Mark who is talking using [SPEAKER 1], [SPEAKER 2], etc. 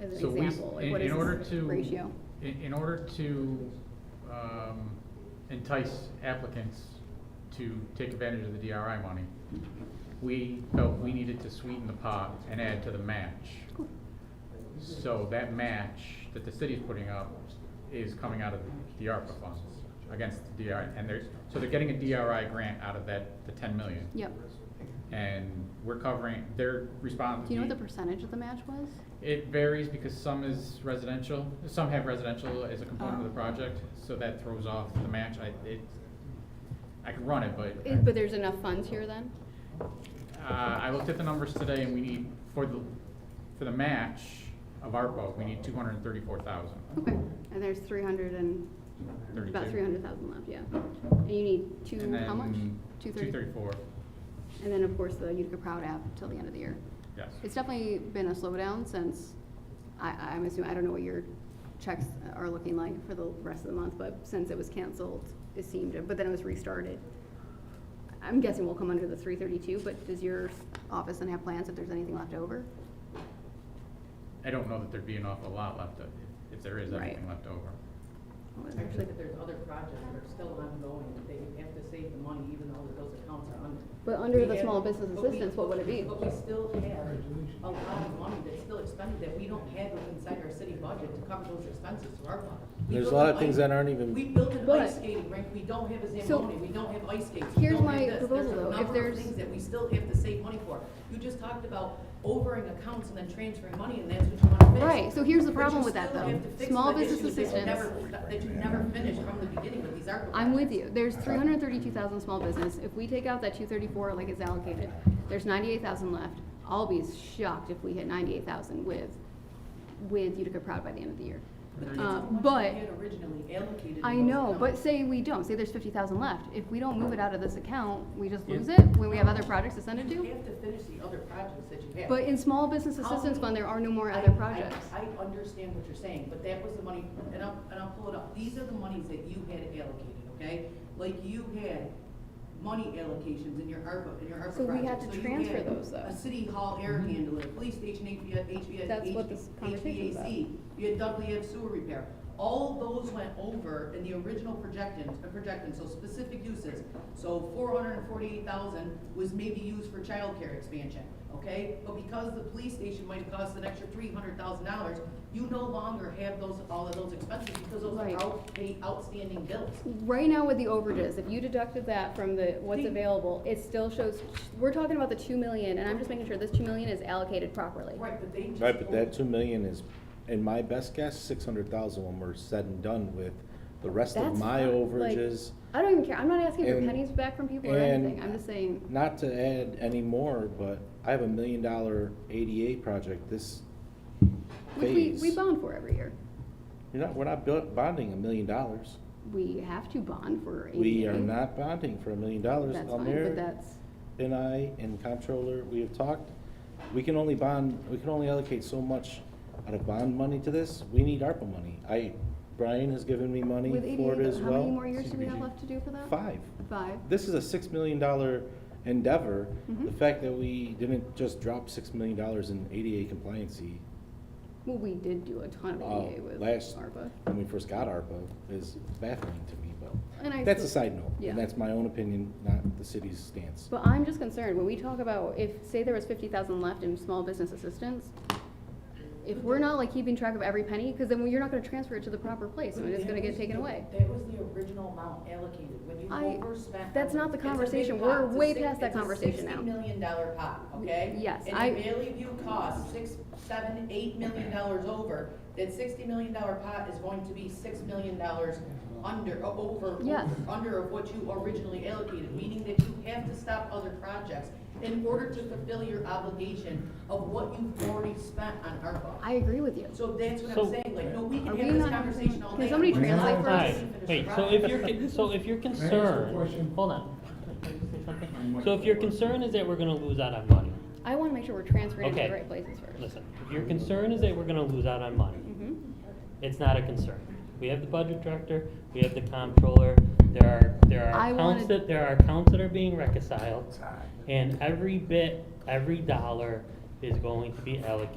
[SPEAKER 1] as
[SPEAKER 2] So
[SPEAKER 1] an
[SPEAKER 2] we-
[SPEAKER 1] example, like
[SPEAKER 2] in-
[SPEAKER 1] what is
[SPEAKER 2] in order
[SPEAKER 1] this
[SPEAKER 2] to-
[SPEAKER 1] ratio?
[SPEAKER 2] In, in order to um, entice applicants to take advantage of the DRI money, we felt we needed to sweeten the pot and add to the match. So that match that the city's putting up is coming out of the ARPA funds against the DRI. And they're, so they're getting a DRI grant out of that, the ten million.
[SPEAKER 1] Yep.
[SPEAKER 2] And we're covering, they're responding.
[SPEAKER 1] Do you know what the percentage of the match was?
[SPEAKER 2] It varies because some is residential, some have residential as a component of the
[SPEAKER 1] Oh.
[SPEAKER 2] project, so that throws off the match. I, it, I could run it, but.
[SPEAKER 1] Eh, But there's enough funds here then?
[SPEAKER 2] Uh, I looked at the numbers today and we need, for the, for the match of ARPA, we need two hundred and thirty-four thousand.
[SPEAKER 1] Okay, and there's three hundred and, about
[SPEAKER 2] Thirty-two.
[SPEAKER 1] three hundred thousand left, yeah. And you need two,
[SPEAKER 2] And
[SPEAKER 1] how much?
[SPEAKER 2] then
[SPEAKER 1] Two
[SPEAKER 2] Two
[SPEAKER 1] thirty?
[SPEAKER 2] thirty-four,
[SPEAKER 1] And then, of course, the Utica Proud app till the end of the year.
[SPEAKER 2] yes.
[SPEAKER 1] It's definitely been a slowdown since, I, I'm assuming, I don't know what your checks are looking like for the rest of the month, but since it was canceled, it seemed, but then it was restarted. I'm guessing we'll come under the three thirty-two, but does your office then have plans if there's anything left over?
[SPEAKER 2] I don't know that there'd be an awful lot left, of- if there is
[SPEAKER 1] Right.
[SPEAKER 2] anything left over.
[SPEAKER 3] Actually, that there's other projects that are still ongoing, that they have to save the money even though those accounts are under.
[SPEAKER 1] But under the
[SPEAKER 3] We have-
[SPEAKER 1] small business
[SPEAKER 3] but we-
[SPEAKER 1] assistance, what would it be?
[SPEAKER 3] But we still have a lot of money that's still expended that we don't have inside our city budget to cover those expenses to our fund. We
[SPEAKER 4] There's a
[SPEAKER 3] built
[SPEAKER 4] lot
[SPEAKER 3] an
[SPEAKER 4] of things
[SPEAKER 3] ice-
[SPEAKER 4] that aren't even-
[SPEAKER 3] We built an
[SPEAKER 1] But-
[SPEAKER 3] ice skating rink, we don't have a
[SPEAKER 1] So,
[SPEAKER 3] Zamboni, we don't have ice skates. we
[SPEAKER 1] here's
[SPEAKER 3] don't
[SPEAKER 1] my
[SPEAKER 3] have this.
[SPEAKER 1] proposal,
[SPEAKER 3] There's a
[SPEAKER 1] though. If
[SPEAKER 3] number of
[SPEAKER 1] there's-
[SPEAKER 3] Things that we still have to save money for. You just talked about overing accounts and then transferring money and that's what you want to fix.
[SPEAKER 1] Right, so here's the
[SPEAKER 3] But
[SPEAKER 1] problem
[SPEAKER 3] you
[SPEAKER 1] with that,
[SPEAKER 3] still
[SPEAKER 1] though.
[SPEAKER 3] have to fix
[SPEAKER 1] Small
[SPEAKER 3] the
[SPEAKER 1] business
[SPEAKER 3] issues that you
[SPEAKER 1] assistance.
[SPEAKER 3] never- That you never finished from the beginning with these articles.
[SPEAKER 1] I'm with you. There's three hundred thirty-two thousand small business. If we take out that two thirty-four like it's allocated, there's ninety-eight thousand left. I'll be shocked if we hit ninety-eight thousand with, with Utica Proud by the end of the year. Uh, but,
[SPEAKER 3] Had originally allocated. in
[SPEAKER 1] I
[SPEAKER 3] those
[SPEAKER 1] know, but
[SPEAKER 3] accounts.
[SPEAKER 1] say we don't, say there's fifty thousand left. If we don't move it out of this account, we just lose it when we have other projects to send it
[SPEAKER 3] You
[SPEAKER 1] to?
[SPEAKER 3] have to finish the other projects that you have.
[SPEAKER 1] But in small business
[SPEAKER 3] How
[SPEAKER 1] assistance
[SPEAKER 3] many-
[SPEAKER 1] fund, there are no more
[SPEAKER 3] I-
[SPEAKER 1] other
[SPEAKER 3] I-
[SPEAKER 1] projects.
[SPEAKER 3] I understand what you're saying, but that was the money, and I'll, and I'll pull it up. These are the monies that you had allocated, okay? Like you had money allocations in your ARPA, in your ARPA
[SPEAKER 1] So we had
[SPEAKER 3] projects.
[SPEAKER 1] to
[SPEAKER 3] you
[SPEAKER 1] transfer
[SPEAKER 3] had
[SPEAKER 1] those, though. Mm-hmm.
[SPEAKER 3] A city hall air handler, police station, HVAC, HVAC.
[SPEAKER 1] That's what this conversation's about.
[SPEAKER 3] HVAC. You had Dudley Ave sewer repair. All those went over in the original projections, uh, projections, so specific uses. So four hundred and forty-eight thousand was maybe used for childcare expansion, okay? But because the police station might have cost an extra three hundred thousand dollars, you no longer have those, all of those expenses because those are
[SPEAKER 1] Right.
[SPEAKER 3] out, the outstanding bills.
[SPEAKER 1] Right now with the overages, if you deducted that from the, what's
[SPEAKER 3] See-
[SPEAKER 1] available, it still shows, we're talking about the two million, and I'm just making sure this two million is allocated properly.
[SPEAKER 3] Right, but they just.
[SPEAKER 4] Right, but that
[SPEAKER 3] over-
[SPEAKER 4] two million is, in my best guess, six hundred thousand when we're said and done with the rest of
[SPEAKER 1] That's
[SPEAKER 4] my
[SPEAKER 1] fine, like-
[SPEAKER 4] overages.
[SPEAKER 1] I don't even care, I'm not asking for
[SPEAKER 4] And-
[SPEAKER 1] pennies back from people or
[SPEAKER 4] and-
[SPEAKER 1] anything, I'm just saying,
[SPEAKER 4] Not to add any more, but I have a million dollar ADA project this
[SPEAKER 1] which we,
[SPEAKER 4] phase.
[SPEAKER 1] we bond for every year.
[SPEAKER 4] You're not, we're not bu- bonding a million dollars.
[SPEAKER 1] We have to bond for ADA.
[SPEAKER 4] We are not bonding for a million dollars.
[SPEAKER 1] That's fine, but
[SPEAKER 4] Almir
[SPEAKER 1] that's,
[SPEAKER 4] and I and comptroller, we have talked. We can only bond, we can only allocate so much out of bond money to this. We need ARPA money. I, Brian has given me money
[SPEAKER 1] with
[SPEAKER 4] for it
[SPEAKER 1] ADA,
[SPEAKER 4] as
[SPEAKER 1] how
[SPEAKER 4] well.
[SPEAKER 1] many more years do we have
[SPEAKER 2] CDBG.
[SPEAKER 1] left to do for that?
[SPEAKER 4] Five.
[SPEAKER 1] Five,
[SPEAKER 4] This is a six million dollar endeavor.
[SPEAKER 1] Mhm.
[SPEAKER 4] The fact that we didn't just drop six million dollars in ADA compliancy
[SPEAKER 1] well, we did do a ton of
[SPEAKER 4] Uh,
[SPEAKER 1] ADA with
[SPEAKER 4] last-
[SPEAKER 1] ARPA.
[SPEAKER 4] when we first got ARPA is baffling to me, but
[SPEAKER 1] And I
[SPEAKER 4] that's a
[SPEAKER 1] still-
[SPEAKER 4] side note.
[SPEAKER 1] Yeah.
[SPEAKER 4] And that's my own opinion, not the city's stance.
[SPEAKER 1] But I'm just concerned, when we talk about, if, say there was fifty thousand left in small business assistance, if we're not like keeping track of every penny, because then you're not gonna transfer it to the proper place, and it's gonna get taken away.
[SPEAKER 3] That was the original amount allocated, when you
[SPEAKER 1] I-
[SPEAKER 3] overspent.
[SPEAKER 1] that's not the
[SPEAKER 3] It's a big
[SPEAKER 1] conversation.
[SPEAKER 3] pot.
[SPEAKER 1] We're
[SPEAKER 3] It's a
[SPEAKER 1] way
[SPEAKER 3] six-
[SPEAKER 1] past that
[SPEAKER 3] it's a
[SPEAKER 1] conversation now.
[SPEAKER 3] Sixty million dollar pot, okay?
[SPEAKER 1] Yes, I-
[SPEAKER 3] And if Valley View costs six, seven, eight million dollars over, that sixty million dollar pot is going to be six million dollars under, o- over.
[SPEAKER 1] Yes.
[SPEAKER 3] Under of what you originally allocated, meaning that you have to stop other projects in order to fulfill your obligation of what you've already spent on ARPA.
[SPEAKER 1] I agree with you.
[SPEAKER 3] So that's what I'm
[SPEAKER 5] So-
[SPEAKER 3] saying, like, no, we
[SPEAKER 1] Are
[SPEAKER 3] can
[SPEAKER 1] we
[SPEAKER 3] have this
[SPEAKER 1] not-
[SPEAKER 3] conversation all
[SPEAKER 1] can
[SPEAKER 3] day.
[SPEAKER 1] somebody
[SPEAKER 3] We're not
[SPEAKER 1] translate
[SPEAKER 3] allowed to
[SPEAKER 1] for us?
[SPEAKER 3] finish the
[SPEAKER 5] Wait, so if you're, con- so if you're
[SPEAKER 6] ask a
[SPEAKER 5] concerned,
[SPEAKER 6] question?
[SPEAKER 5] hold on. So if your concern is that we're gonna lose out on money,
[SPEAKER 1] I wanna make sure we're transferring it to the
[SPEAKER 5] Okay.
[SPEAKER 1] right places first.
[SPEAKER 5] listen, if your concern is that we're gonna lose out on money,
[SPEAKER 1] Mhm.
[SPEAKER 5] it's not a concern. We have the budget director, we have the comptroller, there are, there
[SPEAKER 1] I
[SPEAKER 5] are accounts
[SPEAKER 1] wanted-
[SPEAKER 5] that, there are accounts that are being reconciled. And every bit, every dollar is going to be allocated